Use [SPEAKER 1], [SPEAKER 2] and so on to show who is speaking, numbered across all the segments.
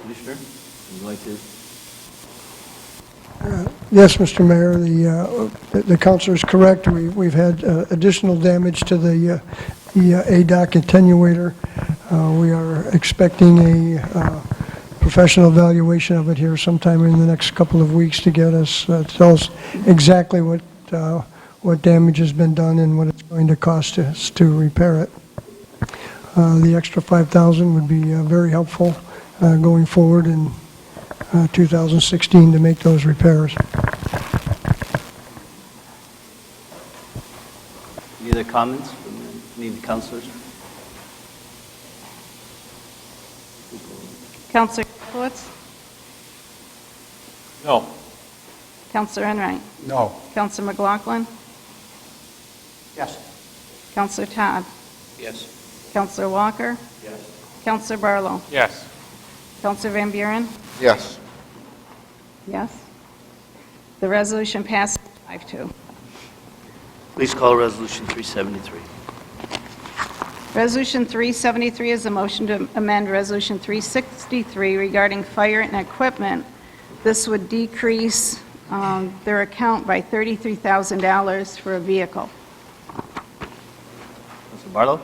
[SPEAKER 1] Commissioner, would you like to?
[SPEAKER 2] Yes, Mr. Mayor, the, uh, the- the counselor is correct. We, we've had uh, additional damage to the, uh, the uh, ADOC attenuator. Uh, we are expecting a, uh, professional evaluation of it here sometime in the next couple of weeks to get us, uh, tell us exactly what, uh, what damage has been done and what it's going to cost us to repair it. Uh, the extra 5,000 would be uh, very helpful, uh, going forward in, uh, 2016 to make those repairs.
[SPEAKER 1] Any other comments from any of the counselors?
[SPEAKER 3] Counselor Capelitz?
[SPEAKER 4] No.
[SPEAKER 3] Counselor Enright?
[SPEAKER 4] No.
[SPEAKER 3] Counselor McLaughlin?
[SPEAKER 4] Yes.
[SPEAKER 3] Counselor Todd?
[SPEAKER 4] Yes.
[SPEAKER 3] Counselor Walker?
[SPEAKER 4] Yes.
[SPEAKER 3] Counselor Barlow?
[SPEAKER 4] Yes.
[SPEAKER 3] Counselor Van Buren?
[SPEAKER 4] Yes.
[SPEAKER 3] Yes. The resolution passes 5-2.
[SPEAKER 1] Please call Resolution 373.
[SPEAKER 3] Resolution 373 is a motion to amend Resolution 363 regarding fire and equipment. This would decrease um, their account by $33,000 for a vehicle.
[SPEAKER 1] Counselor Barlow?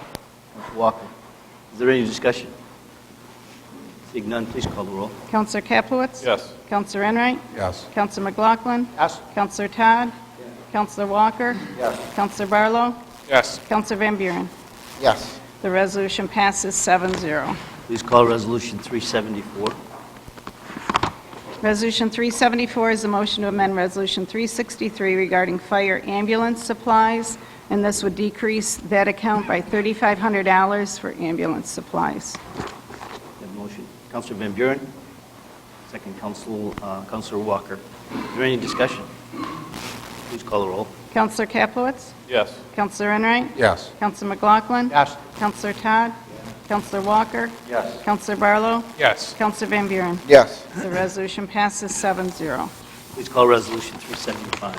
[SPEAKER 1] Counselor Walker? Is there any discussion? Seeing none, please call the roll.
[SPEAKER 3] Counselor Capelitz?
[SPEAKER 4] Yes.
[SPEAKER 3] Counselor Enright?
[SPEAKER 4] Yes.
[SPEAKER 3] Counselor McLaughlin?
[SPEAKER 4] Yes.
[SPEAKER 3] Counselor Todd? Counselor Walker?
[SPEAKER 4] Yes.
[SPEAKER 3] Counselor Barlow?
[SPEAKER 4] Yes.
[SPEAKER 3] Counselor Van Buren?
[SPEAKER 4] Yes.
[SPEAKER 3] The resolution passes 7-0.
[SPEAKER 1] Please call Resolution 374.
[SPEAKER 3] Resolution 374 is a motion to amend Resolution 363 regarding fire ambulance supplies, and this would decrease that account by $3,500 for ambulance supplies.
[SPEAKER 1] That motion. Counselor Van Buren? Second, Counsel, uh, Counselor Walker. Is there any discussion? Please call the roll.
[SPEAKER 3] Counselor Capelitz?
[SPEAKER 4] Yes.
[SPEAKER 3] Counselor Enright?
[SPEAKER 4] Yes.
[SPEAKER 3] Counselor McLaughlin?
[SPEAKER 4] Yes.
[SPEAKER 3] Counselor Todd? Counselor Walker?
[SPEAKER 4] Yes.
[SPEAKER 3] Counselor Barlow?
[SPEAKER 4] Yes.
[SPEAKER 3] Counselor Van Buren?
[SPEAKER 4] Yes.
[SPEAKER 3] The resolution passes 7-0.
[SPEAKER 1] Please call Resolution 375.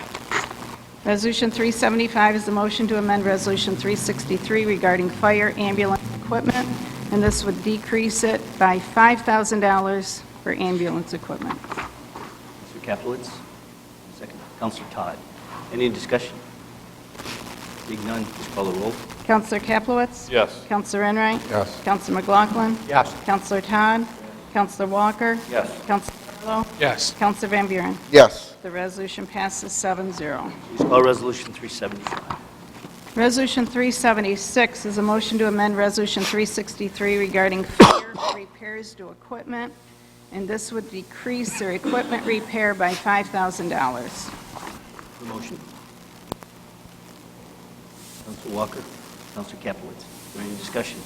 [SPEAKER 3] Resolution 375 is the motion to amend Resolution 363 regarding fire ambulance equipment, and this would decrease it by $5,000 for ambulance equipment.
[SPEAKER 1] Counselor Capelitz, second. Counselor Todd. Any discussion? Seeing none, please call the roll.
[SPEAKER 3] Counselor Kaplowitz?
[SPEAKER 4] Yes.
[SPEAKER 3] Counselor Enright?
[SPEAKER 4] Yes.
[SPEAKER 3] Counselor McLaughlin?
[SPEAKER 4] Yes.
[SPEAKER 3] Counselor Todd? Counselor Walker?
[SPEAKER 4] Yes.
[SPEAKER 3] Counselor Barlow?
[SPEAKER 4] Yes.
[SPEAKER 3] Counselor Van Buren?
[SPEAKER 4] Yes.
[SPEAKER 3] The resolution passes 7-0.
[SPEAKER 1] Please call Resolution 375.
[SPEAKER 3] Resolution 376 is a motion to amend Resolution 363 regarding fire repairs to equipment, and this would decrease their equipment repair by $5,000.
[SPEAKER 1] The motion. Counselor Walker, Counselor Capelitz. Is there any discussion?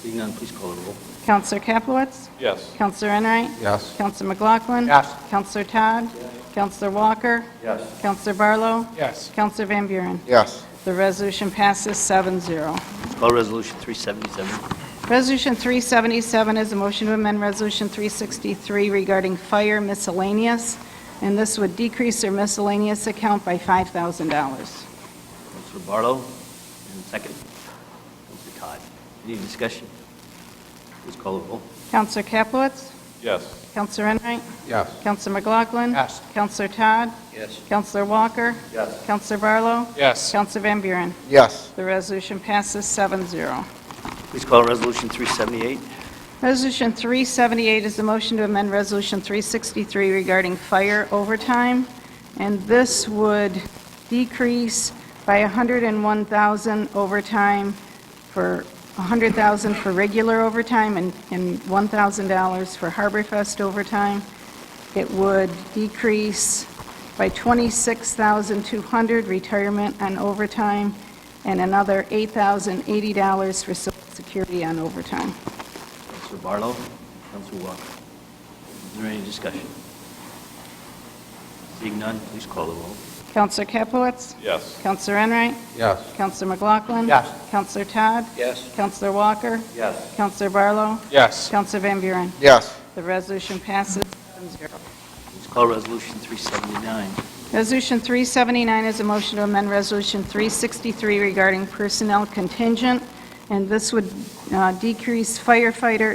[SPEAKER 1] Seeing none, please call the roll.
[SPEAKER 3] Counselor Capelitz?
[SPEAKER 4] Yes.
[SPEAKER 3] Counselor Enright?
[SPEAKER 4] Yes.
[SPEAKER 3] Counselor McLaughlin?
[SPEAKER 4] Yes.
[SPEAKER 3] Counselor Todd? Counselor Walker?
[SPEAKER 4] Yes.
[SPEAKER 3] Counselor Barlow?
[SPEAKER 4] Yes.
[SPEAKER 3] Counselor Van Buren?
[SPEAKER 4] Yes.
[SPEAKER 3] The resolution passes 7-0.
[SPEAKER 1] Please call Resolution 377.
[SPEAKER 3] Resolution 377 is a motion to amend Resolution 363 regarding fire miscellaneous, and this would decrease their miscellaneous account by
[SPEAKER 1] Counselor
[SPEAKER 3] $5,000.
[SPEAKER 1] Barlow, and second. Counselor Todd. Any discussion? Please call the roll.
[SPEAKER 3] Counselor Capelitz?
[SPEAKER 4] Yes.
[SPEAKER 3] Counselor Enright?
[SPEAKER 4] Yes.
[SPEAKER 3] Counselor McLaughlin?
[SPEAKER 4] Yes.
[SPEAKER 3] Counselor Todd?
[SPEAKER 1] Yes.
[SPEAKER 3] Counselor Walker?
[SPEAKER 4] Yes.
[SPEAKER 3] Counselor Barlow?
[SPEAKER 4] Yes.
[SPEAKER 3] Counselor Van Buren?
[SPEAKER 4] Yes.
[SPEAKER 3] The resolution passes 7-0.
[SPEAKER 1] Please call Resolution 378.
[SPEAKER 3] Resolution 378 is the motion to amend Resolution 363 regarding fire overtime, and this would decrease by 101,000 overtime for, 100,000 for regular overtime and and $1,000 for Harbor Fest overtime. It would decrease by 26,200 retirement on overtime and another $8,080 for social security on overtime.
[SPEAKER 1] Counselor Barlow, Counselor Walker. Is there any discussion? Seeing none, please call the roll.
[SPEAKER 3] Counselor Capelitz?
[SPEAKER 4] Yes.
[SPEAKER 3] Counselor Enright?
[SPEAKER 4] Yes.
[SPEAKER 3] Counselor McLaughlin?
[SPEAKER 4] Yes.
[SPEAKER 3] Counselor Todd?
[SPEAKER 4] Yes.
[SPEAKER 3] Counselor Walker?
[SPEAKER 4] Yes.
[SPEAKER 3] Counselor Barlow?
[SPEAKER 4] Yes.
[SPEAKER 3] Counselor Van Buren?
[SPEAKER 4] Yes.
[SPEAKER 3] The resolution passes 7-0.
[SPEAKER 1] Please call Resolution 379.
[SPEAKER 3] Resolution 379 is a motion to amend Resolution 363 regarding personnel contingent, and this would uh, decrease firefighter